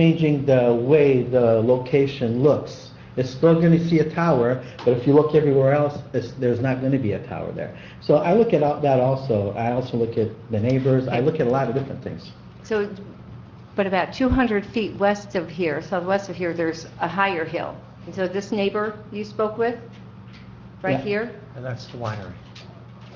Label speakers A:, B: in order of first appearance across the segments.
A: changing the way the location looks. It's still going to see a tower, but if you look everywhere else, it's, there's not going to be a tower there. So I look at all- that also. I also look at the neighbors. I look at a lot of different things.
B: So, but about 200 feet west of here, southwest of here, there's a higher hill. And so this neighbor you spoke with, right
A: Yeah.
B: here,
C: And that's the winery.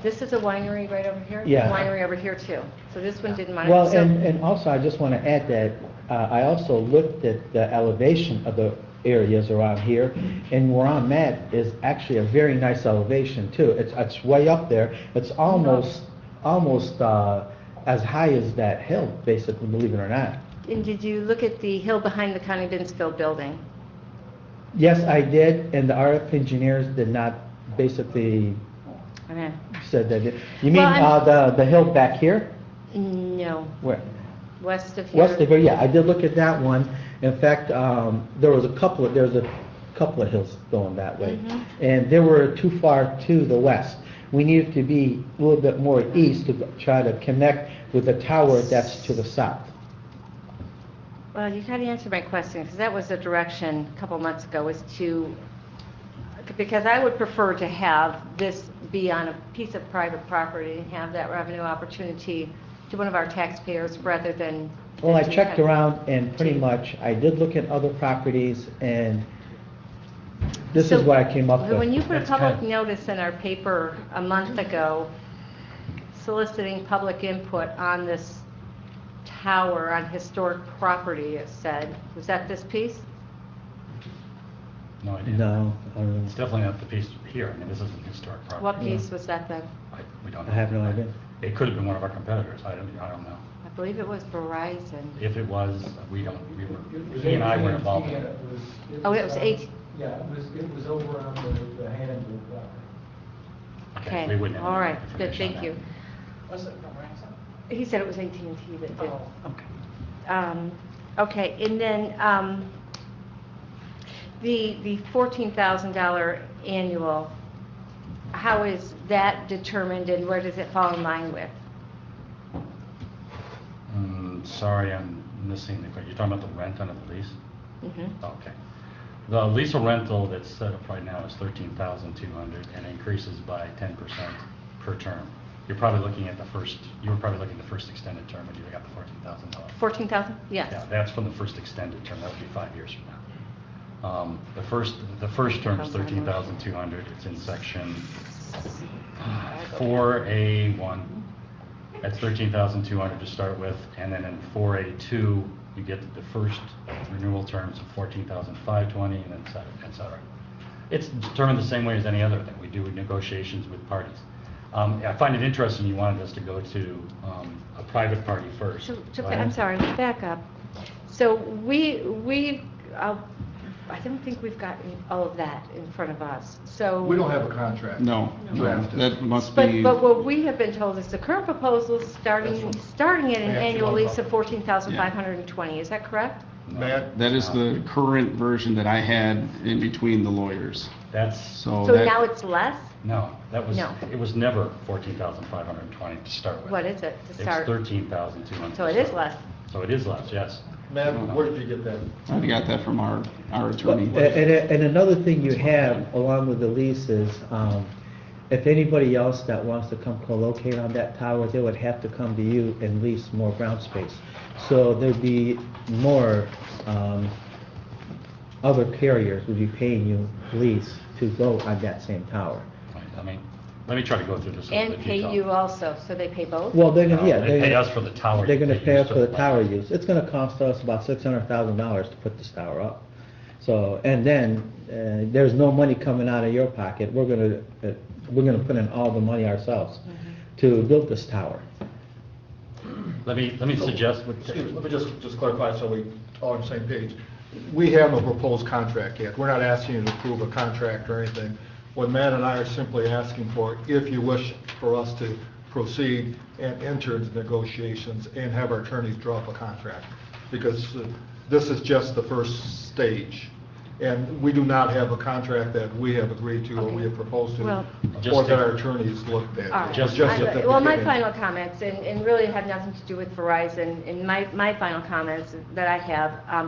B: this is a winery right over here?
A: Yeah.
B: Winery over here too. So this one didn't mind.
A: Well,
B: so-
A: and, and also, I just want to add that, uh, I also looked at the elevation of the areas around here, and where I'm at is actually a very nice elevation too. It's, it's way up there, it's
B: Mm-hmm.
A: almost, almost, uh, as high as that hill, basically, believe it or not.
B: And did you look at the hill behind the Connie Binsfield building?
A: Yes, I did, and the RF engineers did not basically Uh-huh.
B: Okay.
A: said that, it- you mean,
B: Well, I'm-
A: uh, the, the hill back here?
B: No,
A: Where?
B: west of here.
A: West of, yeah, I did look at that one. In fact, um, there was a couple, of there was a couple of hills going that way.
B: Mhm.
A: And they were too far to the west. We needed to be a little bit more east to try to connect with the tower that's to the south.
B: Well, you kind of answered my question, because that was the direction a couple months ago, was to, because I would prefer to have this be on a piece of private property and have that revenue opportunity to one of our taxpayers rather than.
A: Well, I
B: than to
A: checked
B: have-
A: around and pretty much, I did look at other properties and this is
B: So,
A: what I came up with.
B: When you put a
C: That's kind
B: public
C: of-
B: notice in our paper a month ago soliciting public input on this tower on historic property, it said, was that this piece?
D: No idea.
A: No, I don't
D: It's
A: know.
D: definitely not the piece here. I mean, this isn't historic property.
B: What piece was that then?
D: I, we don't know.
A: I have no idea.
D: It could have been one of our competitors. I don't, I don't know.
B: I believe it was Verizon.
D: If it was, we don't, we were,
E: was
D: he and I weren't
E: AT&T,
D: involved in
E: and
D: it.
E: was-
B: Oh, it was
E: uh,
B: eight-
E: Yeah, it was, it was over on the, the Hannibal property.
B: Okay,
D: we wouldn't have
B: all
D: any
B: right, good,
D: information
B: thank
D: on
B: you.
D: that.
E: Was it Verizon?
B: He said it was AT&T that did.
D: Oh.
C: Okay.
B: Um, Okay, and then um, the the $14,000 annual, how is that determined and where does it fall in line with?
D: Mm, sorry, I'm missing the, you're talking about the rent under the lease?
B: Mhm.
D: Okay. The lease or rental that's set up right now is thirteen thousand two hundred and increases by ten percent per term. You're probably looking at the first, you were probably looking at the first extended term when you got the fourteen thousand dollars.
B: 14,000?
D: Yeah,
B: Yes.
D: that's from the first extended term, that would be five years from now. Um, The first, the first term is 13,200, it's in section 4A1. That's 13,200 to start with, and then in 4A2, you get the first renewal terms of 14,520, and et cetera, et cetera. It's determined the same way as any other that we do with negotiations with parties. Um, I find it interesting you wanted us to go to um, a private party first.
B: So- so-
D: but-
B: I'm sorry, back up. So we, we, uh, I don't think we've gotten all of that in front of us, so.
F: We don't have a contract.
G: No, no,
F: Drafted.
G: that must
B: But,
G: be,
B: but what we have been told is the current proposal is starting, starting at an
F: That's
B: annual
F: what-
B: lease of 14,520, is that correct?
F: That,
G: that is the current version that I had in between the lawyers,
D: That's,
G: so
B: So now
G: Oh, that,
B: it's less?
D: no, that was,
B: No.
D: it was never 14,520 to start with.
B: What is it to
D: It's
B: start?
D: 13,200.
B: So it
D: to
B: is
D: start
B: less.
D: with. So it is less, yes.
F: Matt, where did you get that?
G: I got that from our, our
A: Well,
G: attorney.
A: And, and and another thing you have along with the lease is, um, if anybody else that wants to come co-locate on that tower, they would have to come to you and lease more ground space. So there'd be more, um, other carriers would be paying you lease to go on that same tower.
D: Right, I mean, let me try to go through this in a
B: And
D: bit of
B: pay
D: detail.
B: you also, so they pay both?
A: Well, they're gonna, yeah,
D: No, They
A: they're
D: pay us
A: gonna,
D: for the tower.
A: they're gonna
D: they
A: pay
D: used
A: us for
D: to-
A: the tower use. It's gonna cost us about six hundred thousand dollars to put this tower up. So, and then, uh, there's no money coming out of your pocket. We're gonna, uh, we're gonna put in all the money ourselves to build this tower.
D: Let me, let me suggest, what-
F: Excuse me, let me just, just clarify so we all on the same page. We have no proposed contract yet. We're not asking you to approve a contract or anything. What Matt and I are simply asking for, if you wish for us to proceed and enter into negotiations and have our attorneys draw up a contract, because uh, this is just the first stage. And we do not have a contract that we have agreed to or we have proposed to,
B: Well-
D: Just
F: or that
D: take-
F: our attorneys looked at.
B: All right.
D: Just-
F: We're at
B: I-
F: the
B: Well, my
F: beginning.
B: final comments, and, and really have nothing to do with Verizon, and my, my final comments that I have, um,